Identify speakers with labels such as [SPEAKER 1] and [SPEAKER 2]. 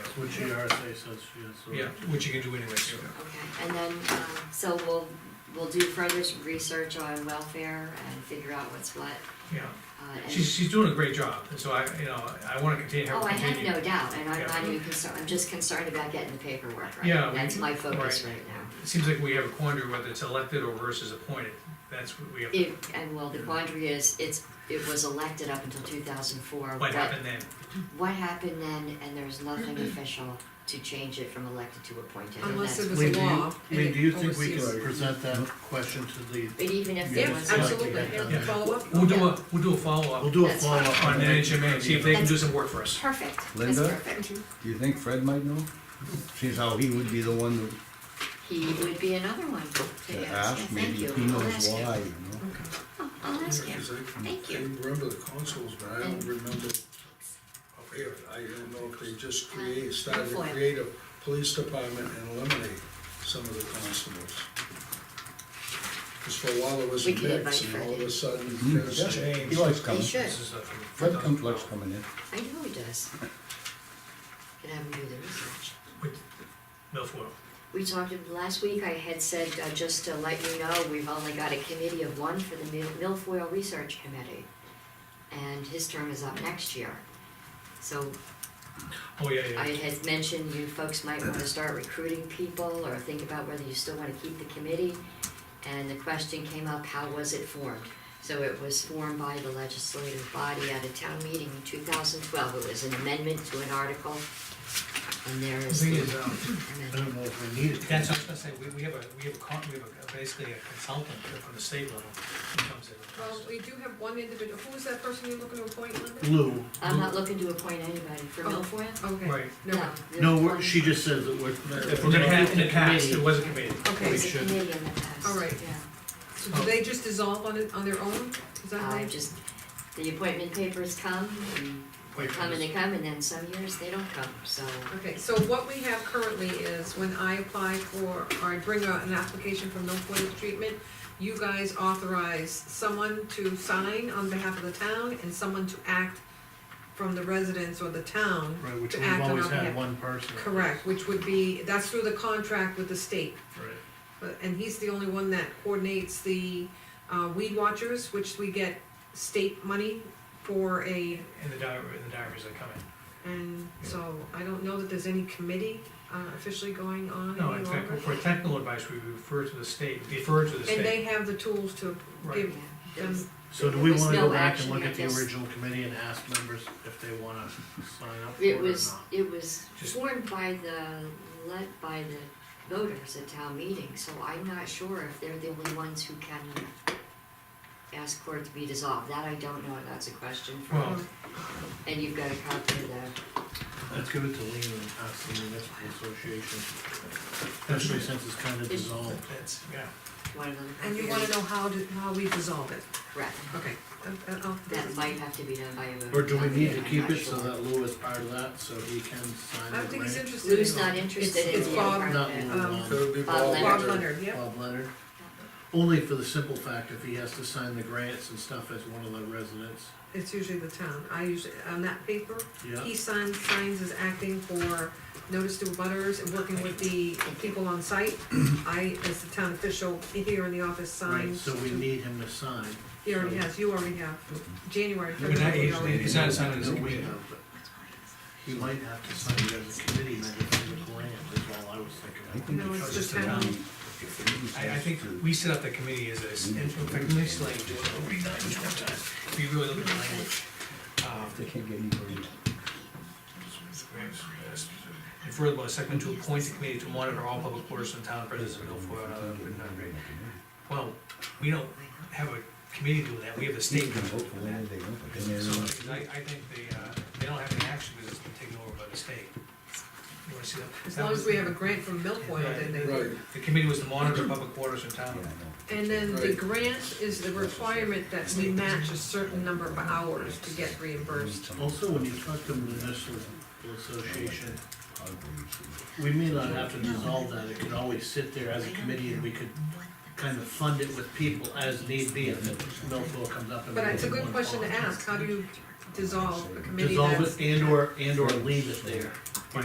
[SPEAKER 1] Which the RSA says she is, so.
[SPEAKER 2] yeah, which you can do anyways. yeah.
[SPEAKER 3] Okay, and then, um, so we'll, we'll do further research on welfare and figure out what's what,
[SPEAKER 2] Yeah,
[SPEAKER 3] uh, and.
[SPEAKER 2] she's, she's doing a great job, and so I, you know, I wanna continue, have
[SPEAKER 3] Oh,
[SPEAKER 2] her
[SPEAKER 3] I
[SPEAKER 2] continue.
[SPEAKER 3] have no doubt, and I'm
[SPEAKER 2] Yeah.
[SPEAKER 3] not even concerned, I'm just concerned about getting the paperwork right.
[SPEAKER 2] Yeah, we-
[SPEAKER 3] That's my focus right now.
[SPEAKER 2] It seems like we have a quandary whether it's elected or versus appointed, that's what we have,
[SPEAKER 3] It, and well, the quandary is, it's, it was elected up until two thousand four.
[SPEAKER 2] what happened then,
[SPEAKER 3] What happened then, and there's nothing official to change it from elected to appointed, and
[SPEAKER 4] Unless
[SPEAKER 3] that's.
[SPEAKER 4] it was
[SPEAKER 1] Lee,
[SPEAKER 4] a
[SPEAKER 1] do you,
[SPEAKER 4] law. and
[SPEAKER 1] Lee,
[SPEAKER 4] it
[SPEAKER 1] do you think we
[SPEAKER 4] oversees-
[SPEAKER 1] can present that question to the,
[SPEAKER 3] But even if there
[SPEAKER 1] Yeah,
[SPEAKER 4] Yes,
[SPEAKER 3] was.
[SPEAKER 4] absolutely,
[SPEAKER 1] Yeah.
[SPEAKER 4] and follow up.
[SPEAKER 2] we'll do
[SPEAKER 4] yeah.
[SPEAKER 2] a, we'll do a follow-up
[SPEAKER 1] we'll do a
[SPEAKER 3] That's fine.
[SPEAKER 1] follow-up.
[SPEAKER 2] on
[SPEAKER 1] the
[SPEAKER 2] NHMA, see if they can do some work for us.
[SPEAKER 3] Perfect, that's
[SPEAKER 5] Linda?
[SPEAKER 3] perfect.
[SPEAKER 5] Do you think Fred might know? Seems how he would be the one that
[SPEAKER 3] He would be another one to
[SPEAKER 5] to
[SPEAKER 3] ask, Yeah,
[SPEAKER 5] ask,
[SPEAKER 3] thank
[SPEAKER 5] maybe
[SPEAKER 3] you,
[SPEAKER 5] if he
[SPEAKER 3] I'll
[SPEAKER 5] knows
[SPEAKER 3] ask
[SPEAKER 5] why,
[SPEAKER 3] you.
[SPEAKER 5] you know?
[SPEAKER 3] Oh, I'll ask you. Thank
[SPEAKER 6] I
[SPEAKER 3] you.
[SPEAKER 6] remember the consoles, but I don't
[SPEAKER 3] And-
[SPEAKER 6] remember up here. I don't know if they
[SPEAKER 3] Uh,
[SPEAKER 6] just create, started to
[SPEAKER 3] Foil.
[SPEAKER 6] create a police department and eliminate some of the constables. Because for a while it was
[SPEAKER 3] We
[SPEAKER 6] a
[SPEAKER 3] could invite
[SPEAKER 6] mix, and
[SPEAKER 3] Fred
[SPEAKER 6] all of
[SPEAKER 3] in.
[SPEAKER 6] a sudden
[SPEAKER 1] Mm-hmm.
[SPEAKER 5] Hmm,
[SPEAKER 6] there's
[SPEAKER 5] yeah,
[SPEAKER 6] change.
[SPEAKER 5] He likes
[SPEAKER 3] He
[SPEAKER 5] coming.
[SPEAKER 3] should,
[SPEAKER 2] This is, uh, from
[SPEAKER 5] Fred comes,
[SPEAKER 2] 2012.
[SPEAKER 5] likes coming in.
[SPEAKER 3] I know he does. Can have him do the research.
[SPEAKER 2] With milfoil.
[SPEAKER 3] We talked, last week I had said, uh, just to let you know, we've only got a committee of one for the Mil- Milfoil Research Committee. And his term is up next year. So
[SPEAKER 2] Oh, yeah,
[SPEAKER 3] I
[SPEAKER 2] yeah,
[SPEAKER 3] had mentioned you folks might wanna start recruiting people or think about whether you still wanna keep the committee. And the question came up, how was it formed? So it was formed by the legislative body at a town meeting in two thousand twelve. It was an amendment to an article. And there
[SPEAKER 2] the
[SPEAKER 3] is
[SPEAKER 2] thing
[SPEAKER 3] the
[SPEAKER 2] is,
[SPEAKER 1] I
[SPEAKER 2] um,
[SPEAKER 3] amendment.
[SPEAKER 1] don't know if we need it.
[SPEAKER 2] That's what I was gonna say, we, we have a, we have a con, we have a, basically a consultant from the state level who comes in. and
[SPEAKER 4] Well,
[SPEAKER 2] does
[SPEAKER 4] we do have one individual, who is that person you're looking to appoint, Linda?
[SPEAKER 1] Lou,
[SPEAKER 3] I'm not looking to appoint anybody for
[SPEAKER 4] Oh.
[SPEAKER 3] milfoil.
[SPEAKER 2] it.
[SPEAKER 4] Okay,
[SPEAKER 2] Right,
[SPEAKER 4] no,
[SPEAKER 3] there's
[SPEAKER 1] no,
[SPEAKER 3] one-
[SPEAKER 1] we're- she just says that we're.
[SPEAKER 2] if we're gonna have, in the past, it was a committee,
[SPEAKER 4] okay,
[SPEAKER 3] There's a
[SPEAKER 1] should-
[SPEAKER 3] committee in the past.
[SPEAKER 4] All right.
[SPEAKER 3] Yeah.
[SPEAKER 4] so do they just dissolve on it, on their own? Is that
[SPEAKER 3] I
[SPEAKER 4] right?
[SPEAKER 3] just, the appointment papers come and they
[SPEAKER 2] Wait,
[SPEAKER 3] come and they come and then some years they don't come, so.
[SPEAKER 4] Okay, so what we have currently is when I apply for, or I bring a- an application for milfoil treatment, you guys authorize someone to sign on behalf of the town and someone to act from the residents or the town.
[SPEAKER 1] Right, which
[SPEAKER 4] to
[SPEAKER 1] we've
[SPEAKER 4] act on
[SPEAKER 1] always
[SPEAKER 4] our
[SPEAKER 1] had
[SPEAKER 4] behalf.
[SPEAKER 1] one person.
[SPEAKER 4] Correct, which would be, that's through the contract with the state.
[SPEAKER 1] Right.
[SPEAKER 4] But- and he's the only one that coordinates the uh, weed watchers, which we get state money for a,
[SPEAKER 2] and the diary, and the diaries that come in.
[SPEAKER 4] and so I don't know that there's any committee uh, officially going on
[SPEAKER 2] No,
[SPEAKER 4] any
[SPEAKER 2] in fact,
[SPEAKER 4] longer.
[SPEAKER 2] for technical advice, we refer to the state, defer to the
[SPEAKER 4] And
[SPEAKER 2] state.
[SPEAKER 4] they have the tools to
[SPEAKER 2] Right.
[SPEAKER 4] give
[SPEAKER 3] There was-
[SPEAKER 4] them,
[SPEAKER 1] So do
[SPEAKER 3] There
[SPEAKER 1] we
[SPEAKER 3] was
[SPEAKER 1] wanna
[SPEAKER 3] no
[SPEAKER 1] go back and
[SPEAKER 3] action,
[SPEAKER 1] look
[SPEAKER 3] I
[SPEAKER 1] at the
[SPEAKER 3] guess.
[SPEAKER 1] original committee and ask members if they wanna sign up for it
[SPEAKER 3] It
[SPEAKER 1] or
[SPEAKER 3] was,
[SPEAKER 1] not?
[SPEAKER 3] it was
[SPEAKER 2] Just-
[SPEAKER 3] formed by the, led by the voters at town meeting, so I'm not sure if they're the only ones who can ask for it to be dissolved, that I don't know, that's a question for,
[SPEAKER 2] Well-
[SPEAKER 4] um,
[SPEAKER 3] and you've got a copy of the,
[SPEAKER 1] Let's give it to Lean and ask the municipal association, especially since it's kinda dissolved.
[SPEAKER 2] That's, yeah,
[SPEAKER 3] one of them.
[SPEAKER 4] and you wanna know how to, how we dissolve it, Uh,
[SPEAKER 3] Correct,
[SPEAKER 4] okay. that- that- I'll-
[SPEAKER 3] that might have to be done by a vote.
[SPEAKER 1] Or do we
[SPEAKER 3] I'm
[SPEAKER 1] need to
[SPEAKER 3] not
[SPEAKER 1] keep it so
[SPEAKER 3] sure.
[SPEAKER 1] that Lou is part of that, so he can sign
[SPEAKER 4] I
[SPEAKER 1] it?
[SPEAKER 4] don't think he's interested. in
[SPEAKER 3] Lou's
[SPEAKER 4] all
[SPEAKER 3] not
[SPEAKER 4] of it.
[SPEAKER 3] interested
[SPEAKER 4] It's-
[SPEAKER 3] in
[SPEAKER 4] It's
[SPEAKER 3] being
[SPEAKER 4] Bob,
[SPEAKER 3] part of
[SPEAKER 1] Not
[SPEAKER 3] it.
[SPEAKER 1] Lou,
[SPEAKER 4] Um,
[SPEAKER 1] Bob-
[SPEAKER 6] It would be
[SPEAKER 3] Bob
[SPEAKER 6] Bob
[SPEAKER 4] Bob
[SPEAKER 3] Leonard.
[SPEAKER 6] Leonard.
[SPEAKER 4] Leonard, yep.
[SPEAKER 1] Bob Leonard. Only for the simple fact if he has to sign the grants and stuff as one of the residents,
[SPEAKER 4] It's usually the town, I usually, on that paper,
[SPEAKER 1] yeah.
[SPEAKER 4] He signs, signs as acting for notice to butters and working with the people on site. I, as the town official here in the office,
[SPEAKER 1] Right,
[SPEAKER 4] signs.
[SPEAKER 1] so we need him to sign.
[SPEAKER 4] He already has, you already have, January,
[SPEAKER 2] But that
[SPEAKER 4] February,
[SPEAKER 2] is-
[SPEAKER 4] we already.
[SPEAKER 2] He's not signing as a
[SPEAKER 1] No, we
[SPEAKER 2] committee.
[SPEAKER 1] have, but He might have to sign it as a committee member for the grant, is all I was
[SPEAKER 5] I
[SPEAKER 1] thinking.
[SPEAKER 5] think
[SPEAKER 4] No,
[SPEAKER 5] it's
[SPEAKER 4] it's
[SPEAKER 5] just
[SPEAKER 4] the town.
[SPEAKER 5] around- if he
[SPEAKER 2] I, I think
[SPEAKER 5] decides
[SPEAKER 2] we set up the committee as a, s- in fact, we just like, do it every night, each one time. we really look at the language. Um,
[SPEAKER 5] to- They can't get anybody.
[SPEAKER 2] And furthermore, second to appoint the committee to monitor all public orders in town presence of Milfoil and other written non-agreed. Well, we don't have a committee doing that, we have the
[SPEAKER 5] They
[SPEAKER 2] state
[SPEAKER 5] can vote
[SPEAKER 2] doing
[SPEAKER 5] for whatever they want, but then
[SPEAKER 2] that.
[SPEAKER 5] they're
[SPEAKER 2] So,
[SPEAKER 5] not-
[SPEAKER 2] because I, I think they, uh, they don't have any action because it's been taken over by the state. You wanna see that?
[SPEAKER 4] As long as we have a grant from Milfoil, then they.
[SPEAKER 6] Right,
[SPEAKER 2] The committee was to monitor public orders in town.
[SPEAKER 5] Yeah, I
[SPEAKER 4] And then the
[SPEAKER 6] Right.
[SPEAKER 4] grant is the requirement that we match a certain number of hours to get reimbursed.
[SPEAKER 5] know.
[SPEAKER 1] Also, when you talk to municipal association,
[SPEAKER 5] I believe so.
[SPEAKER 1] we may not have to dissolve that, it could always sit there as a committee and we could kind of fund it with people as need be if Millville comes up and.
[SPEAKER 4] But it's a good question to ask, how do you dissolve a committee that's?
[SPEAKER 1] Dissolve it and or, and or leave it there.